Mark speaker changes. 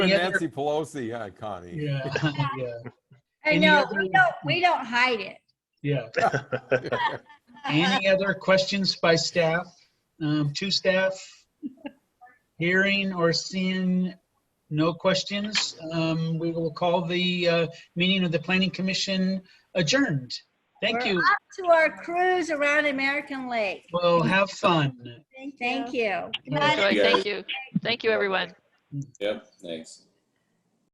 Speaker 1: Any other-
Speaker 2: Nancy Pelosi, huh, Connie?
Speaker 3: Yeah, yeah,
Speaker 1: I
Speaker 3: Any
Speaker 1: know,
Speaker 3: other-
Speaker 1: we don't, we don't hide it.
Speaker 3: yeah. Any other questions by staff, um, to staff? Hearing or seeing no questions, um, we will call the, uh, meeting of the planning commission adjourned. Thank
Speaker 1: We're
Speaker 3: you.
Speaker 1: off To our cruise around American Lake.
Speaker 3: Well, have fun.
Speaker 1: Thank you.
Speaker 4: Enjoy. Thank you. Thank you, everyone.
Speaker 5: Yep, thanks.